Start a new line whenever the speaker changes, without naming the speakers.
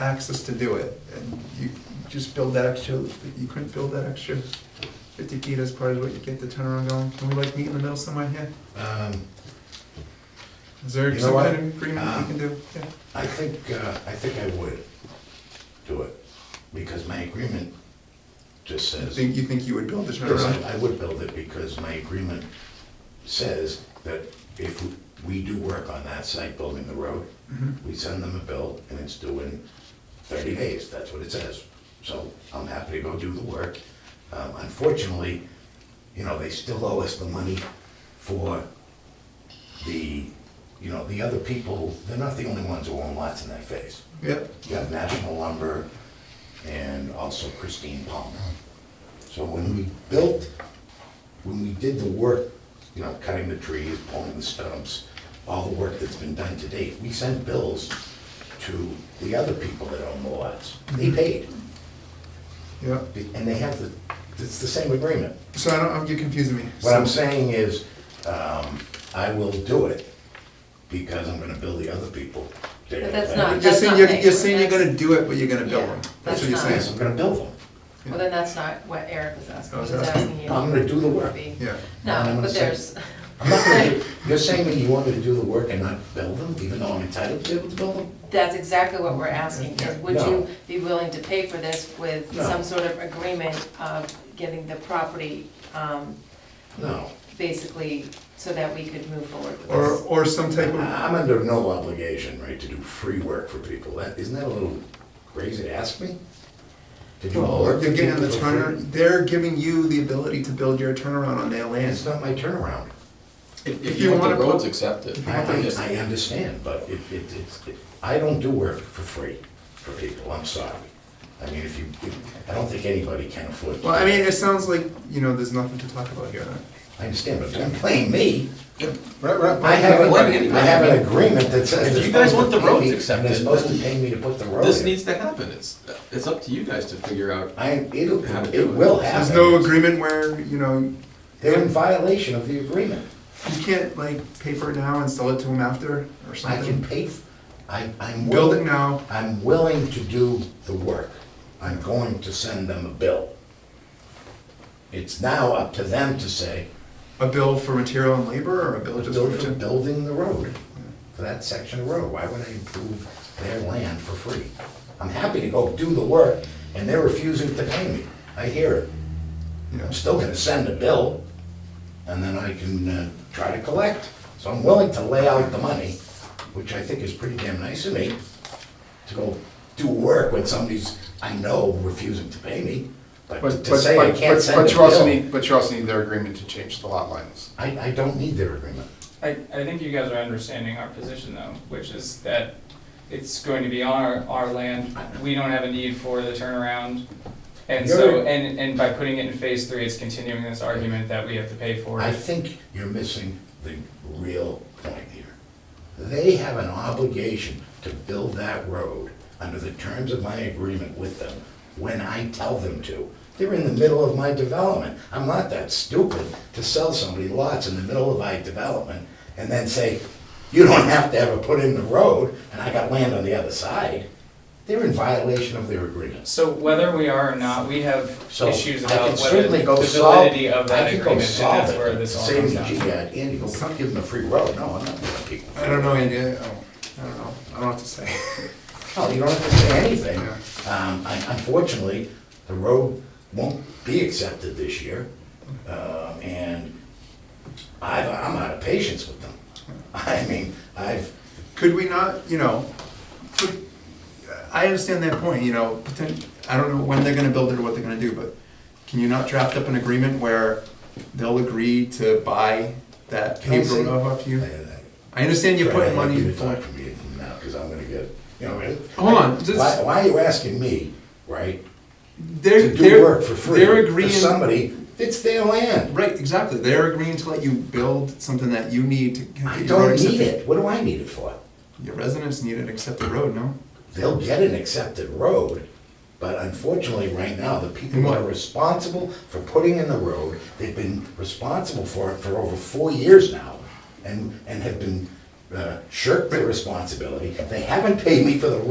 access to do it, and you just build that extra, you couldn't build that extra fifty feet as part of what you get the turnaround going? Can we like meet in the middle somewhere here?
Um,
Is there
You know
some
what? Ah.
kind of agreement we can do? Yeah.
I think, uh, I think I would do it, because my agreement just
You
says.
think, you think you would build the turnaround?
Yes, I I would build it because my agreement says that if we do work on that site building the road,
Mhm.
we send them a bill and it's due in thirty days, that's what it says. So I'm happy to go do the work. Um, Unfortunately, you know, they still owe us the money for the, you know, the other people, they're not the only ones who own lots in that phase.
Yeah,
You have National Lumber and also Christine Palmer. So when we built, when we did the work, you know, cutting the trees, pulling the stumps, all the work that's been done to date, we sent bills to the other people that own the lots. They paid,
yeah.
and they have the, it's the same agreement.
So I don't, I'm- you're confusing me.
What I'm
So-
saying is, um, I will do it because I'm gonna bill the other people. They're
But
gonna
that's
pay.
not-
You're
That's
saying, you're,
paying
you're
for it.
saying you're gonna do it, but you're gonna
Yeah,
build them. That's
that's
what you're
not-
Yes,
saying.
I'm gonna bill them.
Well, then that's not what Eric was asking,
I was
he was
asking-
asking you.
I'm gonna do the work.
Be-
Yeah.
I'm
No,
gonna
but
say-
there's,
I'm not gonna do- You're saying that you want me to do the work and not bill them, even though I'm entitled to be able to bill them?
that's exactly what we're asking, is would
No.
you be willing to pay for this with
No.
some sort of agreement of getting the property, um,
No,
basically, so that we could move forward with
Or,
this?
or some type of,
I'm under no obligation, right, to do free work for people. That, isn't that a little crazy to ask me? To do
well,
work for
you're getting
people
the
for free?
turnaround, they're giving you the ability to build your turnaround on their land.
It's not my turnaround.
If
If
if
you
you
want
wanna
the roads
put,
accepted.
I, I I understand, but it, it, it's, it- I don't do work for free for people, I'm sorry. I mean, if you, if- I don't think anybody can afford to.
well, I
do
mean,
it.
it sounds like, you know, there's nothing to talk about here.
I understand, but don't blame me.
Right, right.
I have,
Wait a
an-
minute.
I have an agreement that says.
If
they're
you guys
supposed
want
to
the
pay
roads
me, and
accepted,
They're supposed to
then
pay me to put the road in.
This needs to happen, it's, it's up to you guys to figure out.
I, it'll,
How to do
it
it.
will happen.
There's no agreement where, you know, you
They're in violation of the agreement.
can't like pay for it now and sell it to them after or
I can
something.
pay, f- I, I'm.
Build it
willing-
now.
I'm willing to do the work. I'm going to send them a bill. It's now up to them to say,
A bill for material and labor or a bill just
build for
for?
building the road, for that section of road, why would I improve their land for free? I'm happy to go do the work, and they're refusing to pay me, I hear it.
Yeah.
I'm still gonna send a bill, and then I can uh, try to collect. So I'm willing to lay out the money, which I think is pretty damn nice of me, to go do work when somebody's, I know, refusing to pay me, but
But,
to
but,
say I
but,
can't
but
send a
but you also
bill,
need, but you also need their agreement to change the lot lines.
I, I don't need their agreement.
I, I think you guys are understanding our position though, which is that it's going to be on our, our land. We don't have a need for the turnaround. And so,
You're-
and, and by putting it in phase three, it's continuing this argument that we have to pay for
I
it.
think you're missing the real point here. They have an obligation to build that road under the terms of my agreement with them when I tell them to. They're in the middle of my development. I'm not that stupid to sell somebody lots in the middle of my development and then say, you don't have to ever put in the road, and I got land on the other side. They're in violation of their agreements.
So whether we are or not, we have
So
issues
I can
about whether
certainly
the
go solve.
validity of that
I can go
agreement, and
solve
that's
it,
where
but
this all
say,
comes down.
"Gee, uh, Andy, go come give them a free road. No, I'm not giving people. free
I don't know,
road.
Andy, I don't, I don't know, I don't have to say.
Hell, you don't have to say anything. Um, un- unfortunately, the road won't be accepted this year. Um, and I've, I'm out of patience with them. I mean, I've,
Could we not, you know, could- I understand that point, you know, poten- I don't know when they're gonna build it or what they're gonna do, but can you not draft up an agreement where they'll agree to buy that
Can I
paved road
say-
off off
I-
you?
I-
I understand you're
uh, Fred,
putting
I'd like
money
you
in
to
for
talk to me now, because I'm gonna get, you know,
Hold on, just-
why, why are you asking me, right?
They're,
To do
they're,
work for free
they're
for
agreeing,
somebody, it's their land.
right, exactly, they're agreeing to let you build something that you need to. get
I
your
don't
road
need
accepted.
it. What do I need it for?
Your residents need an accepted road, no?
they'll get an accepted road, but unfortunately, right now, the people that are
Mm-hmm.
responsible for putting in the road, they've been responsible for it for over four years now, and, and have been uh, shirked their responsibility. They haven't paid me for the